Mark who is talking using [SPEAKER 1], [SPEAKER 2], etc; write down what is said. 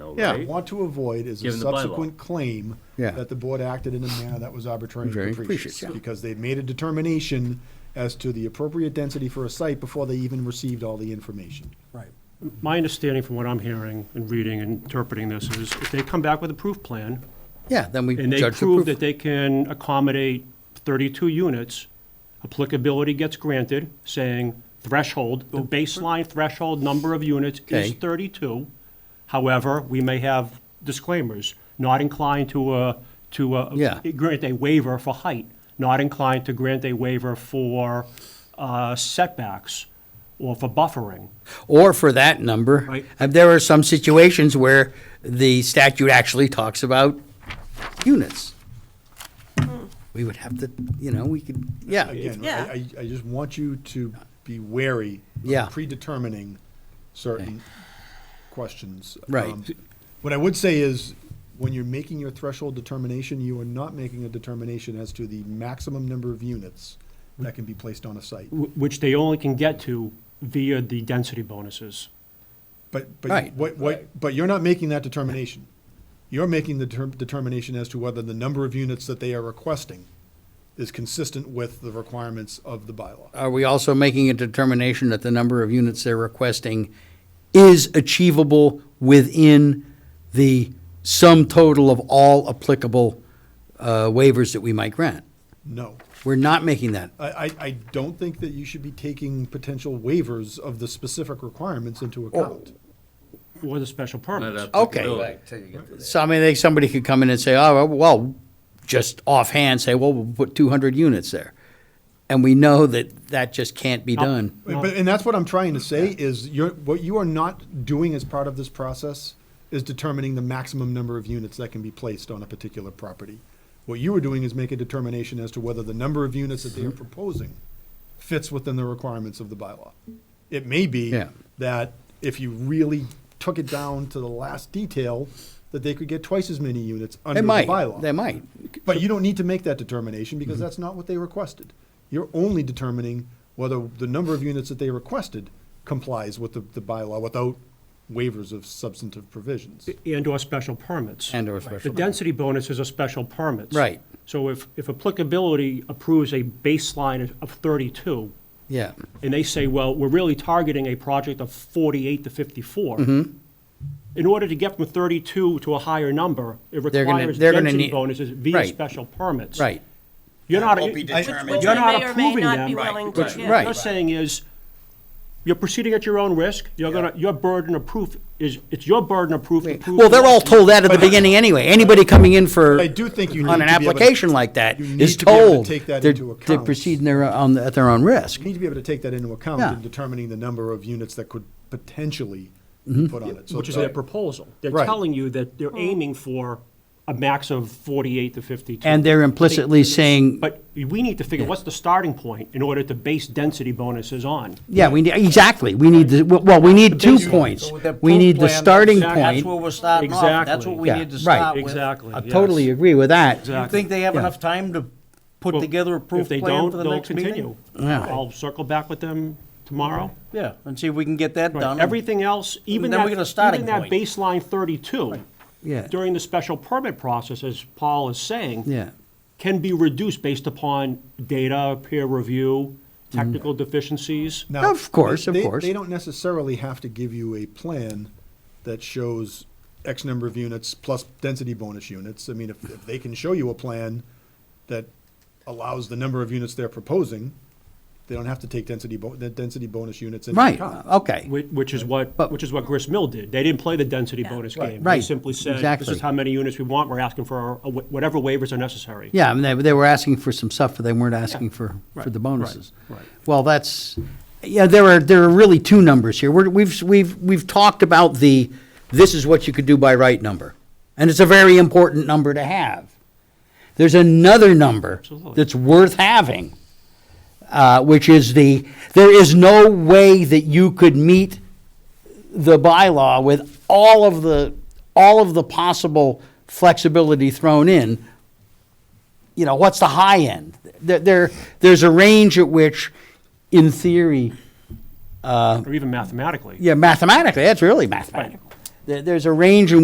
[SPEAKER 1] though,
[SPEAKER 2] Yeah.
[SPEAKER 1] right?
[SPEAKER 3] want to avoid is a
[SPEAKER 1] Given the bylaw.
[SPEAKER 3] subsequent claim
[SPEAKER 2] Yeah.
[SPEAKER 3] that the board acted in a manner that was arbitrary
[SPEAKER 2] Very
[SPEAKER 3] and capricious.
[SPEAKER 2] capricious, yeah.
[SPEAKER 3] Because they'd made a determination as to the appropriate density for a site before they even received all the information.
[SPEAKER 4] Right.
[SPEAKER 5] My understanding from what I'm hearing and reading and interpreting this is if they come back with a proof plan
[SPEAKER 2] Yeah, then we
[SPEAKER 5] and they
[SPEAKER 2] judge
[SPEAKER 5] prove
[SPEAKER 2] the proof.
[SPEAKER 5] that they can accommodate 32 units, applicability gets granted, saying threshold, the baseline threshold number of units
[SPEAKER 2] Oh. Okay.
[SPEAKER 5] is 32. However, we may have disclaimers, not inclined to, uh, to
[SPEAKER 2] Yeah.
[SPEAKER 5] uh, grant a waiver for height, not inclined to grant a waiver for uh, setbacks or for buffering.
[SPEAKER 2] Or for that number.
[SPEAKER 5] Right.
[SPEAKER 2] And there are some situations where the statute actually talks about units. We would have to, you know, we could, yeah,
[SPEAKER 3] Again,
[SPEAKER 6] Yeah.
[SPEAKER 3] I, I- I just want you to be wary
[SPEAKER 2] Yeah.
[SPEAKER 3] of predetermining certain questions.
[SPEAKER 2] Right.
[SPEAKER 3] Um, What I would say is, when you're making your threshold determination, you are not making a determination as to the maximum number of units that can be placed on a site.
[SPEAKER 5] wh- which they only can get to via the density bonuses.
[SPEAKER 3] But, but,
[SPEAKER 2] Right.
[SPEAKER 3] what, what, but you're not making that determination. You're making the term, determination as to whether the number of units that they are requesting is consistent with the requirements of the bylaw.
[SPEAKER 2] are we also making a determination that the number of units they're requesting is achievable within the sum total of all applicable uh, waivers that we might grant?
[SPEAKER 3] No.
[SPEAKER 2] We're not making that.
[SPEAKER 3] I, I, I don't think that you should be taking potential waivers of the specific requirements into account.
[SPEAKER 5] Or the special
[SPEAKER 1] Not
[SPEAKER 5] permits.
[SPEAKER 2] Okay.
[SPEAKER 1] applicability.
[SPEAKER 2] So I mean, they, somebody could come in and say, oh, well, just offhand say, well, we'll put two hundred units there. And we know that that just can't be done.
[SPEAKER 3] But, but- and that's what I'm trying to say is you're, what you are not doing as part of this process is determining the maximum number of units that can be placed on a particular property. What you are doing is make a determination as to whether the number of units that they are proposing fits within the requirements of the bylaw. It may be
[SPEAKER 2] Yeah.
[SPEAKER 3] that if you really took it down to the last detail, that they could get twice as many units under
[SPEAKER 2] They
[SPEAKER 3] the
[SPEAKER 2] might,
[SPEAKER 3] bylaw.
[SPEAKER 2] they might.
[SPEAKER 3] But you don't need to make that determination because that's not what they requested. You're only determining whether the number of units that they requested complies with the, the bylaw without waivers of substantive provisions.
[SPEAKER 5] And/or special permits.
[SPEAKER 2] And/or special
[SPEAKER 5] The
[SPEAKER 2] permits.
[SPEAKER 5] density bonuses are special permits.
[SPEAKER 2] Right.
[SPEAKER 5] So if, if applicability approves a baseline of- of 32,
[SPEAKER 2] Yeah,
[SPEAKER 5] and they say, well, we're really targeting a project of 48 to 54,
[SPEAKER 2] Mm-hmm.
[SPEAKER 5] in order to get from 32 to a higher number, it
[SPEAKER 2] They're gonna-
[SPEAKER 5] requires
[SPEAKER 2] they're gonna
[SPEAKER 5] density
[SPEAKER 2] need-
[SPEAKER 5] bonuses via
[SPEAKER 2] right.
[SPEAKER 5] special permits.
[SPEAKER 2] right.
[SPEAKER 5] You're not,
[SPEAKER 7] Won't be
[SPEAKER 5] you're
[SPEAKER 7] determined.
[SPEAKER 6] Which we
[SPEAKER 5] not
[SPEAKER 6] may or may
[SPEAKER 5] approving
[SPEAKER 6] not
[SPEAKER 5] them.
[SPEAKER 6] be willing to,
[SPEAKER 2] Which-
[SPEAKER 6] yeah.
[SPEAKER 5] What
[SPEAKER 2] right.
[SPEAKER 5] I'm saying is, you're proceeding at your own risk, you're gonna, your burden of proof is, it's your burden of proof to prove.
[SPEAKER 2] Well, they're all
[SPEAKER 5] that.
[SPEAKER 2] told that at the beginning anyway. Anybody coming in for,
[SPEAKER 3] I do think you need
[SPEAKER 2] on
[SPEAKER 3] to
[SPEAKER 2] an
[SPEAKER 3] be able to-
[SPEAKER 2] application like that
[SPEAKER 3] you
[SPEAKER 2] is
[SPEAKER 3] need to be able to
[SPEAKER 2] told.
[SPEAKER 3] take that
[SPEAKER 2] they're-
[SPEAKER 3] into
[SPEAKER 2] They
[SPEAKER 3] account.
[SPEAKER 2] proceed in their, on, at their own risk.
[SPEAKER 3] You need to be able to take that into account
[SPEAKER 2] Yeah.
[SPEAKER 3] in determining the number of units that could potentially be put on it. So
[SPEAKER 5] Which is
[SPEAKER 3] that-
[SPEAKER 5] their proposal. They're
[SPEAKER 3] Right.
[SPEAKER 5] telling you that they're aiming for a max of 48 to 52.
[SPEAKER 2] And they're implicitly saying,
[SPEAKER 5] But we need to figure, what's the starting point in order to base density bonuses on?
[SPEAKER 2] yeah, we need, exactly, we need, the well, we need two points. We need the starting
[SPEAKER 7] That's
[SPEAKER 2] point.
[SPEAKER 7] where we're starting off. That's
[SPEAKER 5] Exactly.
[SPEAKER 7] what we
[SPEAKER 2] Yeah,
[SPEAKER 7] need to
[SPEAKER 2] right.
[SPEAKER 7] start with.
[SPEAKER 5] Exactly,
[SPEAKER 2] I
[SPEAKER 5] yes.
[SPEAKER 2] totally agree with that.
[SPEAKER 7] You think they have enough time to put
[SPEAKER 5] Well,
[SPEAKER 7] together a proof
[SPEAKER 5] If they
[SPEAKER 7] plan
[SPEAKER 5] don't,
[SPEAKER 7] for the
[SPEAKER 5] they'll
[SPEAKER 7] next
[SPEAKER 5] continue.
[SPEAKER 7] meeting?
[SPEAKER 2] Yeah.
[SPEAKER 5] I'll circle back with them tomorrow.
[SPEAKER 7] Yeah, and see if we can get that
[SPEAKER 5] Right.
[SPEAKER 7] done.
[SPEAKER 5] Everything else, even
[SPEAKER 7] then
[SPEAKER 5] that,
[SPEAKER 7] we get a starting
[SPEAKER 5] even that
[SPEAKER 7] point.
[SPEAKER 5] baseline 32,
[SPEAKER 2] Yeah.
[SPEAKER 5] during the special permit process, as Paul is saying,
[SPEAKER 2] Yeah.
[SPEAKER 5] can be reduced based upon data, peer review,
[SPEAKER 2] Mm.
[SPEAKER 5] technical deficiencies.
[SPEAKER 3] Now,
[SPEAKER 2] Of course, of
[SPEAKER 3] they-
[SPEAKER 2] course.
[SPEAKER 3] They don't necessarily have to give you a plan that shows X number of units plus density bonus units. I mean, if, if they can show you a plan that allows the number of units they're proposing, they don't have to take density, bo- the density bonus units into
[SPEAKER 2] Right,
[SPEAKER 3] account.
[SPEAKER 2] okay.
[SPEAKER 5] Which, which is what,
[SPEAKER 2] But-
[SPEAKER 5] which is what Grist Mill did. They didn't play the density
[SPEAKER 6] Yeah.
[SPEAKER 5] bonus game. They
[SPEAKER 2] Right.
[SPEAKER 5] simply said, this
[SPEAKER 2] Exactly.
[SPEAKER 5] is how many units we want, we're asking for uh, wh- whatever waivers are necessary.
[SPEAKER 2] Yeah, I mean, they, they were asking for some stuff, but they weren't asking for, for the bonuses.
[SPEAKER 5] right.
[SPEAKER 2] Well, that's, yeah, there are, there are really two numbers here. We're, we've, we've, we've talked about the, this is what you could do by right number. And it's a very important number to have. There's another number
[SPEAKER 5] Absolutely.
[SPEAKER 2] that's worth having, uh, which is the, there is no way that you could meet the bylaw with all of the, all of the possible flexibility thrown in, you know, what's the high end? There, there, there's a range at which, in theory,
[SPEAKER 5] Or even mathematically.
[SPEAKER 2] yeah, mathematically, that's really mathematical. There, there's a range in